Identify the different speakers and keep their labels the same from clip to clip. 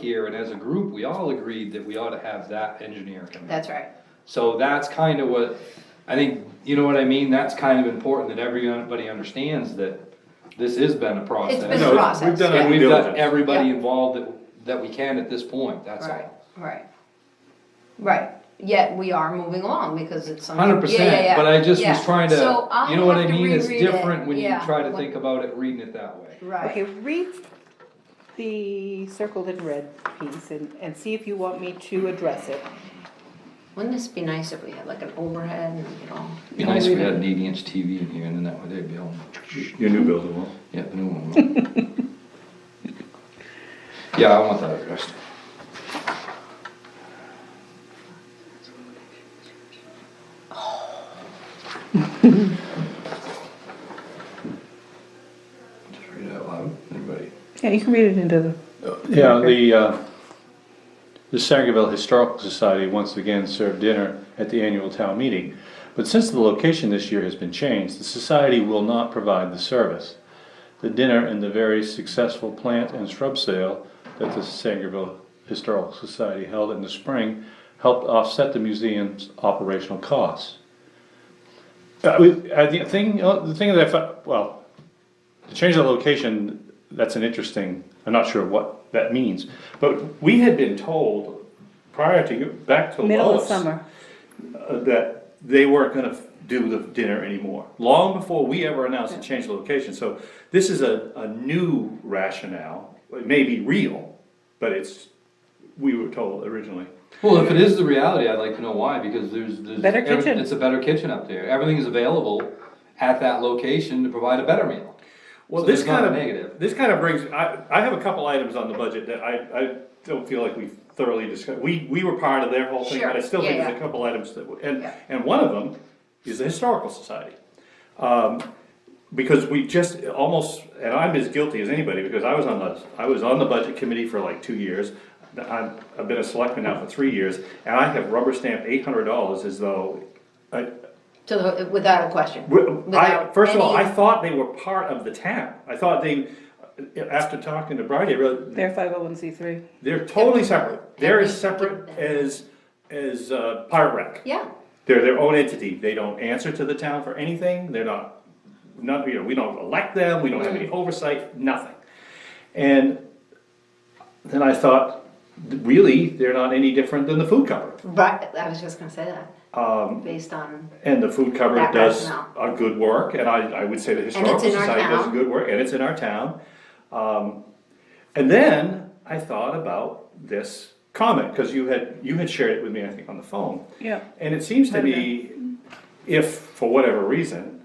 Speaker 1: here, and as a group, we all agreed that we ought to have that engineer come in.
Speaker 2: That's right.
Speaker 1: So that's kind of what, I think, you know what I mean, that's kind of important that everybody understands that this has been a process.
Speaker 2: It's been
Speaker 3: No,
Speaker 2: a
Speaker 3: we've
Speaker 2: process.
Speaker 3: done
Speaker 1: And
Speaker 3: it.
Speaker 2: yeah.
Speaker 1: we've
Speaker 3: Diligence.
Speaker 1: got everybody
Speaker 2: Yeah.
Speaker 1: involved that, that we can at this point, that's
Speaker 2: Right,
Speaker 1: all.
Speaker 2: right. Right, yet we are moving along because it's something.
Speaker 1: Hundred percent, but I just was trying to,
Speaker 2: So I'll
Speaker 1: you know what I
Speaker 2: have to
Speaker 1: mean, it's
Speaker 2: reread it,
Speaker 1: different when you
Speaker 2: yeah.
Speaker 1: try to think about it, reading it that way.
Speaker 4: Okay,
Speaker 2: Right,
Speaker 4: read the circled in red piece and, and see if you want me to address it.
Speaker 2: wouldn't this be nice if we had like an overhead and, you know,
Speaker 1: Be nice if we had an eighty inch TV in here, and then that way they'd be able,
Speaker 3: Your new building will.
Speaker 1: yeah, the new one. Yeah, I want that addressed. Just read it out loud, anybody?
Speaker 4: Yeah, you can read it into the.
Speaker 5: Yeah, the, uh, the Sangerville Historical Society once again served dinner at the annual town meeting. But since the location this year has been changed, the society will not provide the service. The dinner and the very successful plant and shrub sale that the Sangerville Historical Society held in the spring helped offset the museum's operational costs. Uh, we- I think, thing- uh, the thing that I found, well, to change the location, that's an interesting, I'm not sure what that means, but we had been told prior to, back to
Speaker 4: Middle of
Speaker 5: Lois.
Speaker 4: summer.
Speaker 5: uh, That they weren't gonna do the dinner anymore, long before we ever announced a change of location, so this is a, a new rationale. It may be real, but it's, we were told originally.
Speaker 1: Well, if it is the reality, I'd like to know why, because there's, there's.
Speaker 4: Better
Speaker 1: every-
Speaker 4: kitchen.
Speaker 1: It's a better kitchen up there, everything is available at that location to provide a better meal.
Speaker 5: Well,
Speaker 1: So
Speaker 5: this
Speaker 1: it's not
Speaker 5: kind
Speaker 1: a
Speaker 5: of,
Speaker 1: negative.
Speaker 5: this kind of brings, I, I have a couple items on the budget that I, I don't feel like we've thoroughly discussed. We, we were part of their whole thing, but I
Speaker 2: Sure.
Speaker 5: still think
Speaker 2: Yeah,
Speaker 5: there's a
Speaker 2: yeah.
Speaker 5: couple items that, would- and,
Speaker 2: Yeah.
Speaker 5: and one of them is the Historical Society. Um, because we just almost, and I'm as guilty as anybody, because I was on the, I was on the budget committee for like two years. I've, I've been a selectman now for three years, and I have rubber stamped eight hundred dollars as though, I,
Speaker 2: to the, without a question?
Speaker 5: well, I,
Speaker 2: without
Speaker 5: first of all, I
Speaker 2: any-
Speaker 5: thought they were part of the town. I thought they, after talking to Bridie, I realized
Speaker 4: They're five oh one C three.
Speaker 5: they're totally separate. They're as
Speaker 2: Have we-
Speaker 5: separate as, as, uh, Pirate Rec.
Speaker 2: Yeah,
Speaker 5: They're their own entity. They don't answer to the town for anything. They're not, not, you know, we don't elect them. We don't have any
Speaker 2: Mm.
Speaker 5: oversight, nothing. And then I thought, really, they're not any different than the food cupboard.
Speaker 2: right, I was just gonna say that. Um. Based on,
Speaker 5: And the food cupboard
Speaker 2: That
Speaker 5: does
Speaker 2: rationale.
Speaker 5: a good work, and I, I would say the
Speaker 2: in our
Speaker 5: Historical Society does
Speaker 2: town.
Speaker 5: good work, and it's in our town. Um, and then I thought about this comment, because you had, you had shared it with me, I think, on the phone.
Speaker 4: Yeah.
Speaker 5: And it seems
Speaker 1: uh,
Speaker 5: to me, if, for whatever reason,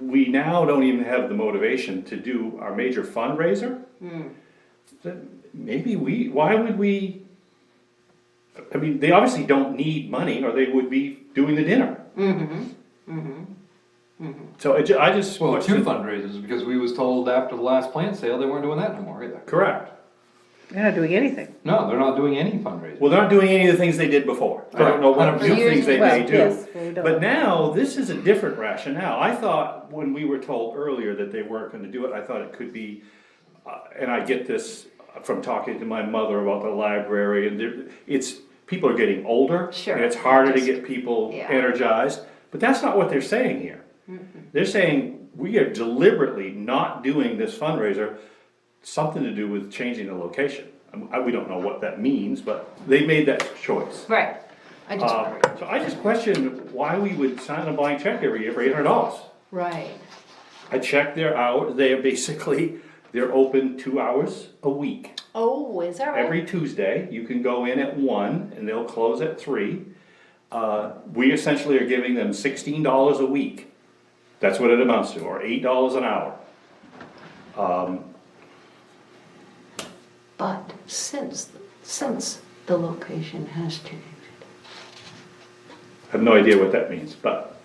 Speaker 5: we now don't even have the motivation to do our major fundraiser,
Speaker 1: Hmm.
Speaker 5: then maybe we, why would we? I mean, they obviously don't need money, or they would be doing the dinner. So I ju- I just.
Speaker 1: Mm-hmm. Well, two fundraisers, because we was told after the last plant sale, they weren't doing that no more either.
Speaker 5: Correct.
Speaker 4: They're not doing anything.
Speaker 1: No, they're not doing any fundraising.
Speaker 5: Well, they're not doing any of the things they did before. I don't know what
Speaker 1: Correct.
Speaker 5: new things they may
Speaker 4: Well,
Speaker 5: do.
Speaker 4: yes, well, we don't.
Speaker 5: But now, this is a different rationale. I thought when we were told earlier that they weren't gonna do it, I thought it could be, uh, and I get this from talking to my mother about the library and there- it's, people are getting older.
Speaker 2: Sure.
Speaker 5: And it's harder to
Speaker 2: Just-
Speaker 5: get people
Speaker 2: yeah.
Speaker 5: energized, but that's not what they're saying here. They're saying, we are deliberately not doing this fundraiser, something to do with changing the location. Um, I, we don't know what that means, but they made that choice.
Speaker 2: right, I just,
Speaker 5: Uh, So I just questioned why we would sign a blank check every year for eight hundred dollars.
Speaker 2: right,
Speaker 5: I checked their hour, they're basically, they're open two hours a week.
Speaker 2: oh, is that right?
Speaker 5: Every Tuesday, you can go in at one and they'll close at three. Uh, we essentially are giving them sixteen dollars a week. That's what it amounts to, or eight dollars an hour.
Speaker 6: But since, since the location has changed.
Speaker 5: I have no idea what that means, but,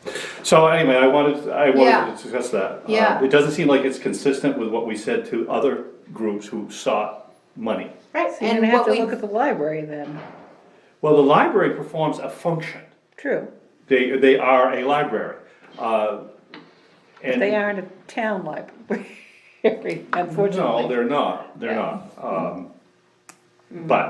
Speaker 5: so anyway, I wanted, I wanted
Speaker 2: Yeah.
Speaker 5: to discuss that. Uh,
Speaker 2: Yeah.
Speaker 5: It doesn't seem like it's consistent with what we said to other groups who sought money.
Speaker 2: Right,
Speaker 4: So you're
Speaker 2: and
Speaker 4: gonna have
Speaker 2: what
Speaker 4: to
Speaker 2: we,
Speaker 4: look at the library then.
Speaker 5: Well, the library performs a function.
Speaker 4: True.
Speaker 5: They, they are a library. Uh, And
Speaker 4: They aren't a town library,
Speaker 5: No,
Speaker 4: unfortunately.
Speaker 5: they're not, they're not. Um, But